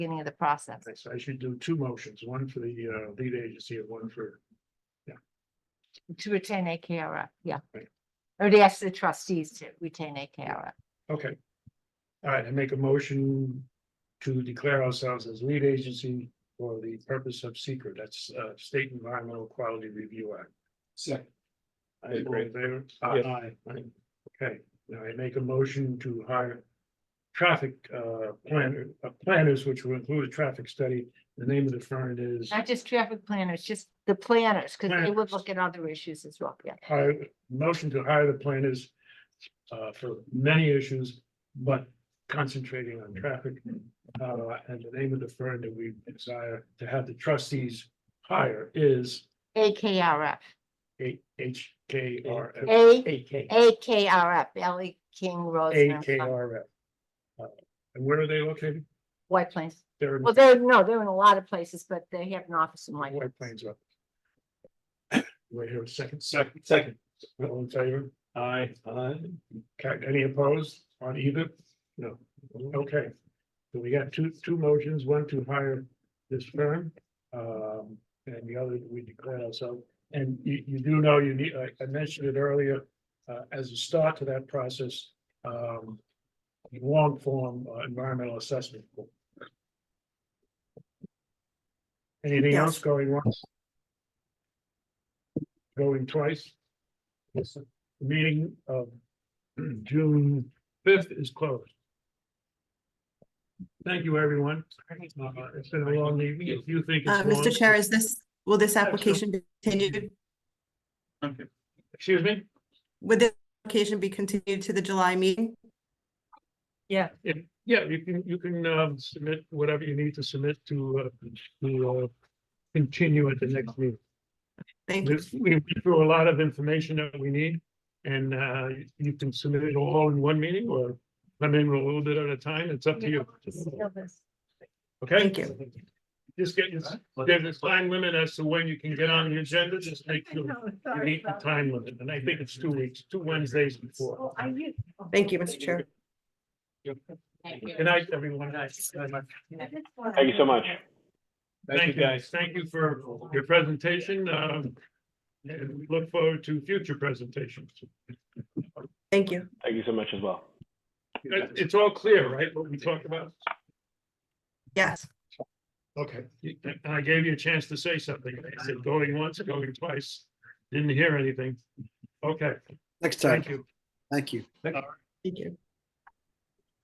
beginning of the process. I s- I should do two motions, one for the uh lead agency and one for, to retain AKRF, yeah. Right. Or to ask the trustees to retain AKRF. okay. All right, I make a motion to declare ourselves as lead agency for the purpose of secret, that's uh State Environmental Quality Review Act. Second. I all in favor? Yes. Aye. aye. Okay, now I make a motion to hire traffic uh planner, uh, planners, which will include a traffic study. The name of the firm is Not just traffic planners, just the planners, because they would Planners. look at other issues as well, yeah. hire, motion to hire the planners uh, for many issues, but concentrating on traffic. Uh, and the name of the firm that we desire to have the trustees hire is AKRF, A H K R F. A, A K. AKRF, Valley King A Road, K R F. Uh, And where are they located? White Plains. They're in Well, they're, no, they're in a lot of places, but they have an office in White. White Plains. Wait here a second. Second. Second. All in favor? Aye. Aye. Okay, any opposed on either? No, okay. So we got two, two motions, one to hire this firm, um, and the other we declare ourselves. And you, you do know you need, I, I mentioned it earlier, uh, as a start to that process, um, long form uh, environmental assessment. Anything else going once? Going twice? Yes. Meeting of June fifth is closed. Thank you, everyone. Uh, It's been a long evening. If you think Uh, it's long. Mr. Chair, is this, will this sure. application be continued? Excuse me? Would this application be continued to the July meeting? Yeah. If- Yeah, you can, you can um, submit whatever you need to submit to, uh, to uh, continue at the next meeting. Thank you. We we went through a lot of information that we need and uh, you can submit it all in one meeting or come in a little bit at a time. It's up to you. Okay? Thank you. Just get, your- there's a time limit as to when you can get on the agenda. Just make sure you meet the time limit. And I think it's two weeks, two Wednesdays before. Thank you, Mr. Chair. Good night, everyone. Thank you so much. Thank you, guys. Thank you for your presentation. Um, and we look forward to future presentations. Thank you. Thank you so much as well. It- It's all clear, right, what we talked about? Yes, Okay. And I gave you a chance to say something. I said going once, going twice. Didn't hear anything. Okay, Next time. thank you. Thank you. thank you.